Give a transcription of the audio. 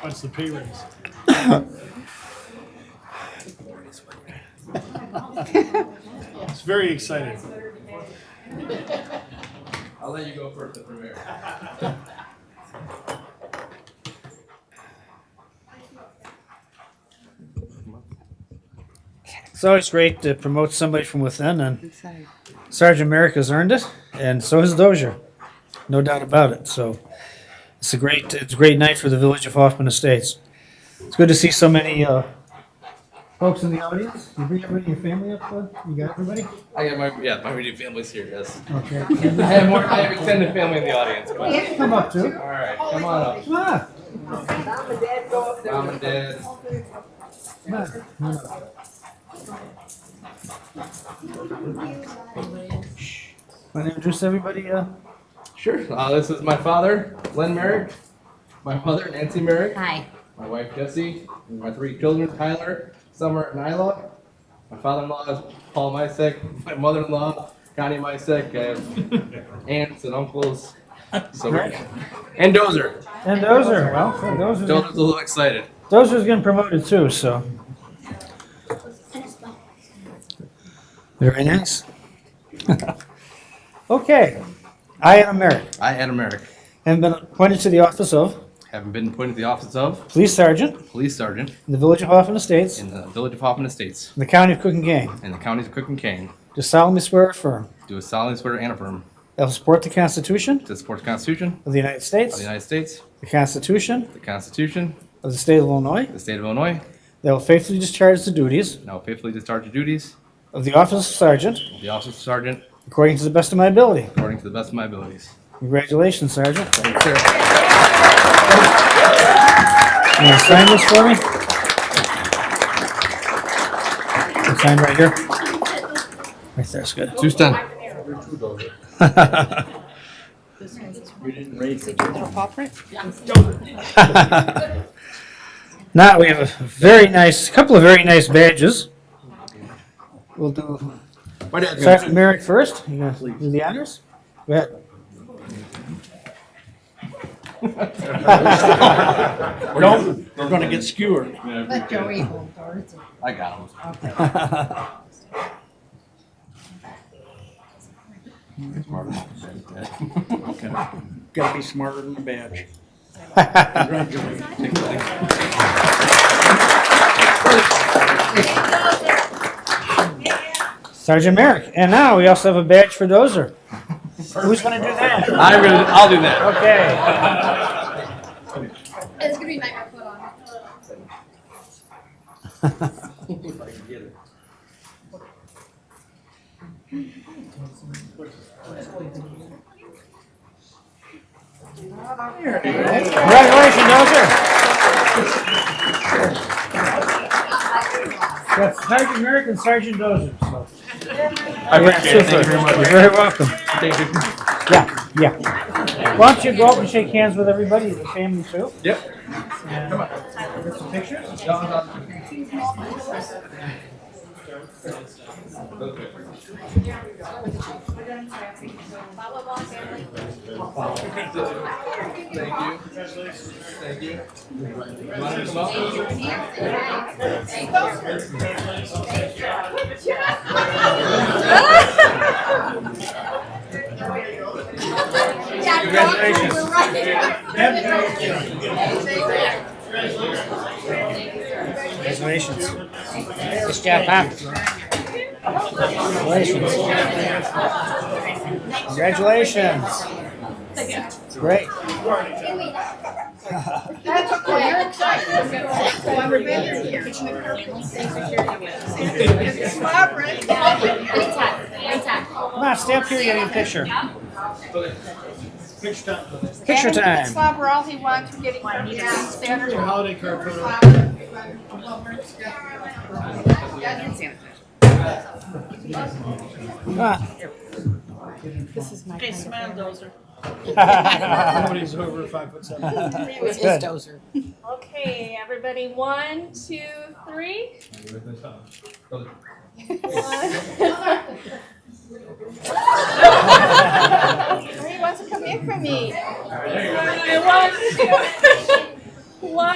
What's the pay raise? It's very exciting. I'll let you go first if we're there. It's always great to promote somebody from within, and Sergeant Merrick has earned it, and so has Dozier, no doubt about it. So it's a great, it's a great night for the village of Hoffman Estates. It's good to see so many uh, folks in the audience. You bring everybody, your family up, bud? You got everybody? I got my yeah, my immediate family's here. Yes. Okay. I have more. I have extended family in the audience. But, Yeah, come up too. all right, come on up. Come on up. Mom and dad go up there. Mom and dad. Come on. Come on up. Want to introduce everybody? Uh, Sure. Uh, this is my father, Len Merrick. My mother, Nancy Merrick. Hi. My wife, Jessie. and My three children, Tyler, Summer, and Isla. My father-in-law is Paul Mysek. My mother-in-law, Connie Mysek. I have aunts and uncles. So we're- and Dozer. and Dozier. Well, Dozier's Dozer's a little excited. Dozier's getting promoted too, so. Very nice. okay. I am Merrick I, Adam Merrick, and been appointed to the office of having been appointed to the office of Police Sergeant Police Sergeant in the Village of Hoffman Estates in in the Village of Hoffman Estates. the County of Cook and Gang. and the counties of Cook and Kane Do solemnly swear or affirm do a solemnly swear and affirm that I will support the Constitution to support the Constitution of the United of States, the United States, the Constitution the Constitution of the State of Illinois, of the State of Illinois, that I will faithfully discharge the duties and I will faithfully discharge the duties of the Office of Sergeant of the Office of Sergeant according to the best of my ability. according to the best of my abilities. Congratulations, Sergeant. Thank you, sir. You want to sign this for me? You Sign right here. Right there's good. Two stun. Now, we have a very nice, couple of very nice badges. We'll do My dad's Sergeant gonna, Merrick first. You gonna do the honors? Go ahead. Don't, we're gonna get skewered. Let Joey hold ours. I got him. Gotta be smarter than the badge. Sergeant Merrick. And now, we also have a badge for Dozer. Who's gonna do that? I'm gonna, I'll do that. Okay. It's gonna be nightmare put on. Congratulations, Dozer. That's Sergeant Merrick and Sergeant Dozer, so. I appreciate it. Thank you very You're much. very welcome. Thank you. Yeah, yeah. Why don't you go up and shake hands with everybody, the family too? Yep. Some pictures? Thank you. Thank you. You wanna come up? Congratulations. Congratulations. Nice job, Pop. Congratulations. Congratulations. Great. That's okay, you're excited. Oh, I remember here. It's vibrant. Come on, stay up here, get a picture. Picture It's time. Bob Rossi wants to get one. Yeah, standard. Holiday card photo. Come on. Okay, smile, Dozer. Nobody's over five foot seven. It's good. Okay, everybody, one, two, three. He wants to come in for me. One, two, one,